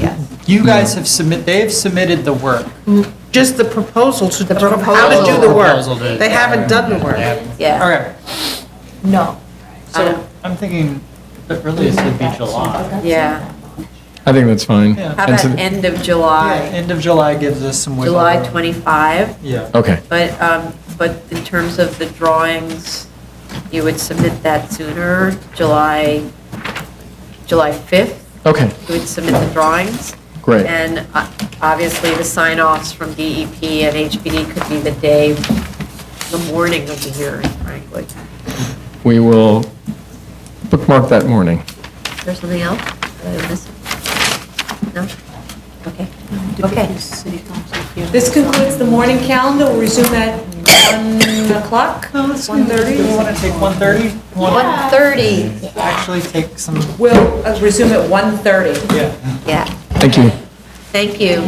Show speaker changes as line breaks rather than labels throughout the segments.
Yes. Mm.
You guys have submit, they have submitted the work.
Just the proposal to,
The
how to do the
proposal.
Oh, Proposal to-
work. They haven't done the
They
work.
haven't.
Yeah.
Okay,
No.
so I'm thinking that really it should be July.
Yeah.
I think that's fine.
Yeah.
How
And
about
so-
end of
Yeah,
July?
End of July gives us some wiggle
July
room.
25,
Yeah.
Okay,
but, um, but in terms of the drawings, you would submit that sooner, July, July 5th,
okay,
you would submit the drawings.
great.
And uh, obviously, the sign-offs from DEP and HPD could be the day, the morning of the hearing, frankly.
We will bookmark that morning.
Is there something else that I missed? No? Okay. Okay.
This concludes the morning calendar. We'll resume at 1 o'clock.
No, let's do, do you want to take 1:30? You want
1:30,
to actually take some,
We'll uh, resume at 1:30.
yeah.
yeah.
Thank you.
Thank you.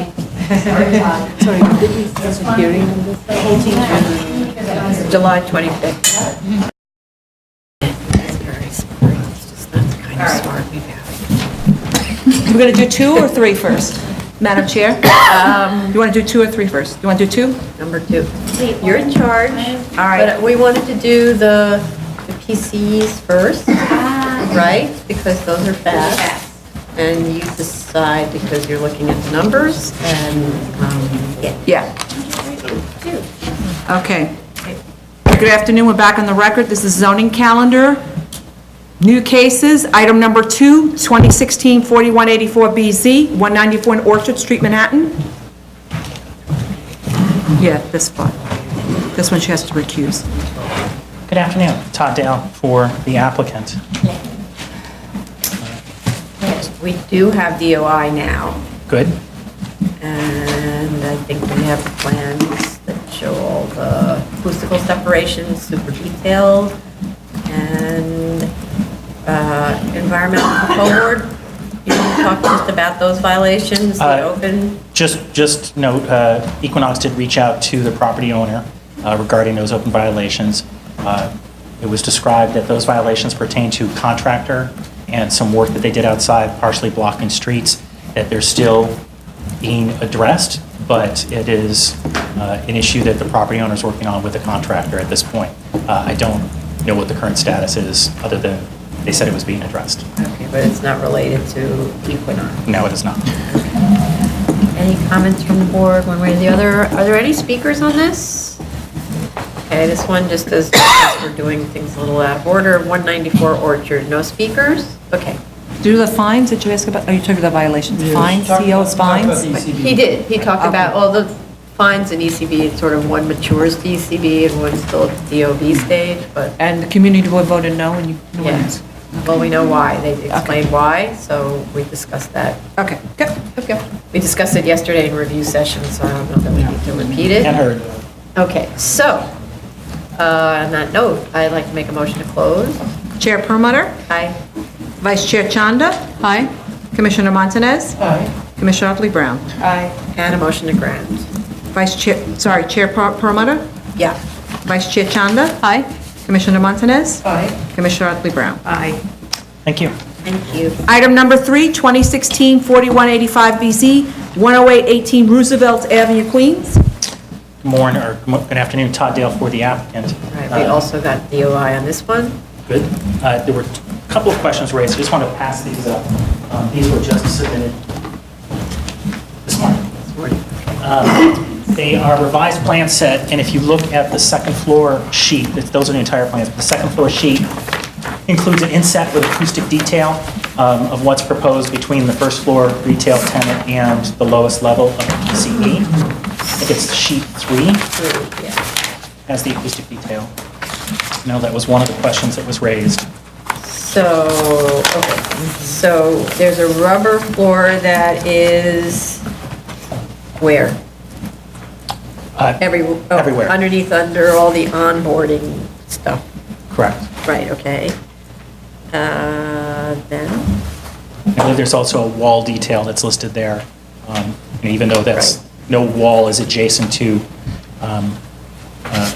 July 25th. That's very smart. It's just- That's kind of smart.
We're going to do two or three first? Madam Chair? You want to do two or three first? You want to do two?
Number two. You're in charge. All right. But we wanted to do the the PCs first, right? Because those are fast. And you decide because you're looking at the numbers and, um, yeah.
Yeah. Okay. Good afternoon, we're back on the record. This is zoning calendar. New cases, item number two, 2016-4184BZ, 194 in Orchard Street, Manhattan. Yeah, this one. This one she has to recuse.
Good afternoon, Todd Dale for the applicant.
We do have DOI now.
Good.
And I think we have the plans that show all the acoustical separations, super detailed, and uh, environmental control board. You want to talk just about those violations, the
Uh,
open?
Just, just note, uh, Equinox did reach out to the property owner uh, regarding those open violations. Uh, It was described that those violations pertain to contractor and some work that they did outside, partially blocking streets, that they're still being addressed, but it is uh, an issue that the property owner is working on with the contractor at this point. Uh, I don't know what the current status is, other than they said it was being addressed.
Okay, but it's not related to Equinox.
No, it is not.
Any comments from the board, one way or the other? Are there any speakers on this? Okay, this one just does, we're doing things a little out of order. 194 Orchard, no speakers? Okay.
Do the fines that you asked about, oh, you took the violations, fines, COs, fines?
But He did, he talked about all the fines in ECB, it's sort of one matures to ECB and one's still at the DOB stage, but,
And the community board voted no, and you, no one
Yeah.
else?
well, we know why, they explained why, so we discussed that.
Okay, good.
Okay. We discussed it yesterday in review session, so I don't know that we need to repeat it.
And heard.
Okay, so, uh, on that note, I'd like to make a motion to close.
Chair Perlmutter?
Aye.
Vice Chair Chanda? Aye. Commissioner Montanez? Aye. Commissioner Otley Brown?
And a motion to grant.
Vice Chair, sorry, Chair Per- Perlmutter?
Yeah.
Vice Chair Chanda? Aye. Commissioner Montanez? Aye. Commissioner Otley Brown?
Aye.
Thank you.
Thank you.
Item number three, 2016-4185BZ, 10818 Roosevelt Avenue, Queens.
Morning, or good afternoon, Todd Dale for the applicant.
All right, we
Uh,
also got DOI on this one.
Good. Uh, There were a couple of questions raised, I just want to pass these up. Um, These were just submitted this morning. Um, They are revised plan set, and if you look at the second floor sheet, it's- those are the entire plans, the second floor sheet includes an inset with acoustic detail um, of what's proposed between the first floor retail tenant and the lowest level of PCE. I think it's sheet three has the acoustic detail. No, that was one of the questions that was raised.
So, okay, so there's a rubber floor that is where?
Uh,
Every- oh,
Everywhere.
Underneath, under all the onboarding stuff.
Correct.
Right, okay. Uh, Then,
I believe there's also a wall detail that's listed there, um, and even though that's,
Right.
no wall is adjacent to um, uh,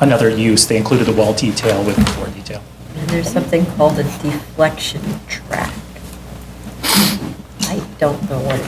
another use, they included the wall detail with the floor detail.
and there's something called a deflection track. Right. don't know what it